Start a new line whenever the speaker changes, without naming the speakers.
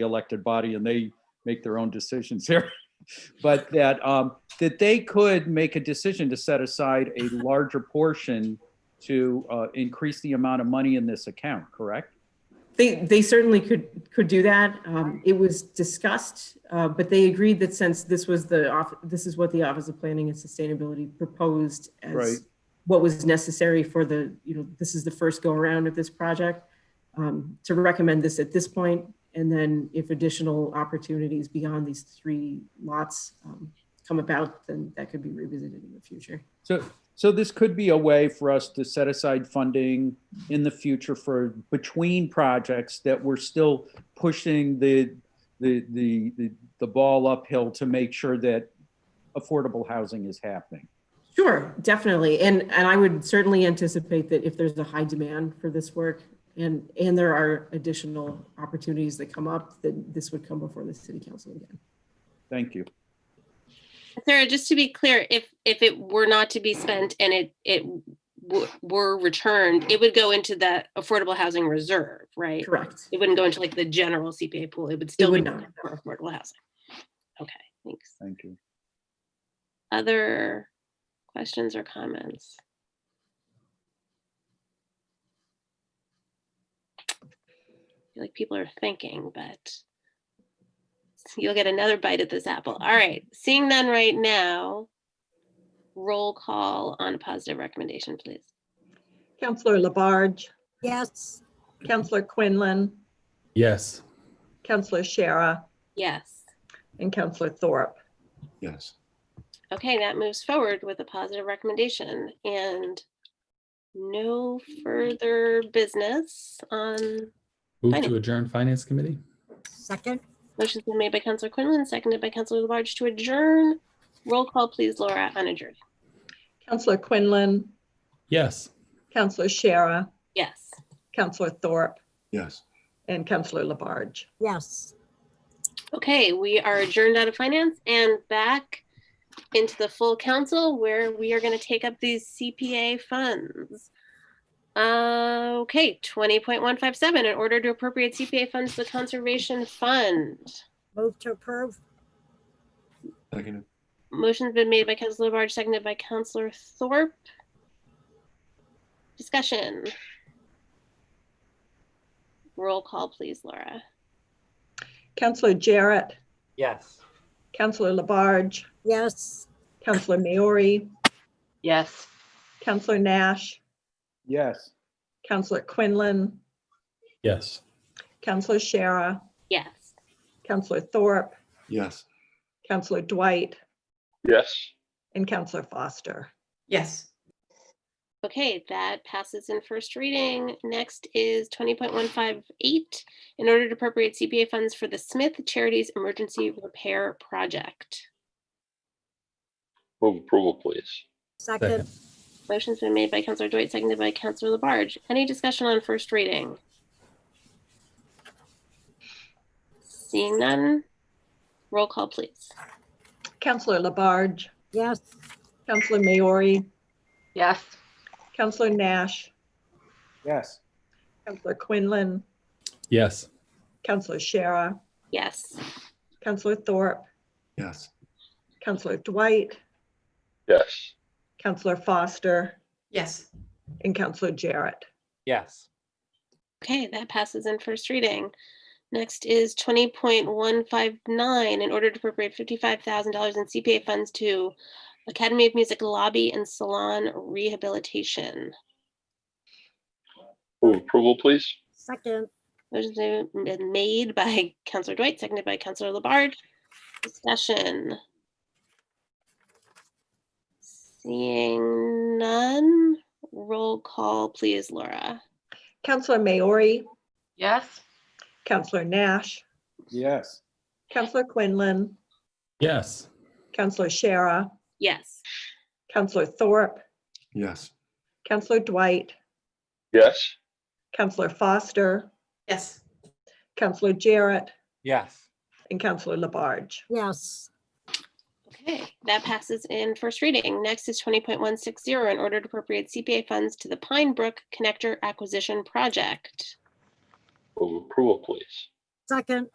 the elected body and they make their own decisions here. But that, um, that they could make a decision to set aside a larger portion to, uh, increase the amount of money in this account, correct?
They, they certainly could, could do that. Um, It was discussed, uh, but they agreed that since this was the, off- this is what the Office of Planning and Sustainability proposed
Right.
as what was necessary for the, you know, this is the first go-around of this project, um, to recommend this at this point, and then if additional opportunities beyond these three lots um, come about, then that could be revisited in the future.
So, so this could be a way for us to set aside funding in the future for between projects that we're still pushing the, the, the, the- the ball uphill to make sure that affordable housing is happening.
Sure, definitely. And, and I would certainly anticipate that if there's a high demand for this work and, and there are additional opportunities that come up, that this would come before the city council again.
Thank you.
Sarah, just to be clear, if, if it were not to be spent and it, it w- were returned, it would go into that affordable housing reserve, right?
Correct.
It wouldn't go into like the general CPA pool. It would still be
would not.
for affordable housing. Okay, thanks.
Thank you.
Other questions or comments? I feel like people are thinking, but you'll get another bite at this apple. All right, seeing none right now. Roll call on a positive recommendation, please.
Counselor Labarge,
Yes,
Counselor Quinlan,
Yes.
Counselor Shara,
Yes.
and Counselor Thorpe.
Yes.
Okay, that moves forward with a positive recommendation and no further business on
Move
Finance.
to adjourn Finance Committee?
second,
Motion's been made by Counselor Quinlan, seconded by Counselor Labarge to adjourn. Roll call, please, Laura, on adjourn.
Counselor Quinlan,
Yes.
Counselor Shara,
Yes.
Counselor Thorpe,
Yes.
and Counselor Labarge.
yes.
Okay, we are adjourned out of finance and back into the full council where we are going to take up these CPA funds. Uh, okay, 20.157, in order to appropriate CPA funds to the Conservation Fund.
Move to approve,
Second.
Motion's been made by Counselor Labarge, seconded by Counselor Thorpe. Discussion. Roll call, please, Laura.
Counselor Jarrett,
Yes.
Counselor Labarge,
yes.
Counselor Maori,
Yes.
Counselor Nash,
Yes.
Counselor Quinlan,
Yes.
Counselor Shara,
Yes.
Counselor Thorpe,
Yes.
Counselor Dwight,
Yes.
and Counselor Foster.
Yes.
Okay, that passes in first reading. Next is twenty point one five eight. In order to appropriate CPA funds for the Smith Charities Emergency Repair Project.
Move approval, please.
Second,
Motion's been made by Counselor Dwight, seconded by Counselor Labarge. Any discussion on first reading? Seeing none, roll call, please.
Counselor Labarge,
yes.
Counselor Maori,
Yes.
Counselor Nash,
Yes.
Counselor Quinlan,
Yes.
Counselor Shara,
Yes.
Counselor Thorpe,
Yes.
Counselor Dwight,
Yes.
Counselor Foster,
Yes.
and Counselor Jarrett.
Yes.
Okay, that passes in first reading. Next is twenty point one five nine, in order to appropriate fifty-five thousand dollars in CPA funds to Academy of Music Lobby and Salon Rehabilitation.
Move approval, please.
Second,
Motion's been made by Counselor Dwight, seconded by Counselor Labarge. Discussion. Seeing none, roll call, please, Laura.
Counselor Maori,
Yes.
Counselor Nash,
Yes.
Counselor Quinlan,
Yes.
Counselor Shara,
Yes.
Counselor Thorpe,
Yes.
Counselor Dwight,
Yes.
Counselor Foster,
Yes.
Counselor Jarrett,
Yes.
and Counselor Labarge.
yes.
Okay, that passes in first reading. Next is twenty point one six zero, in order to appropriate CPA funds to the Pine Brook Connector Acquisition Project.
Move approval, please.
Second,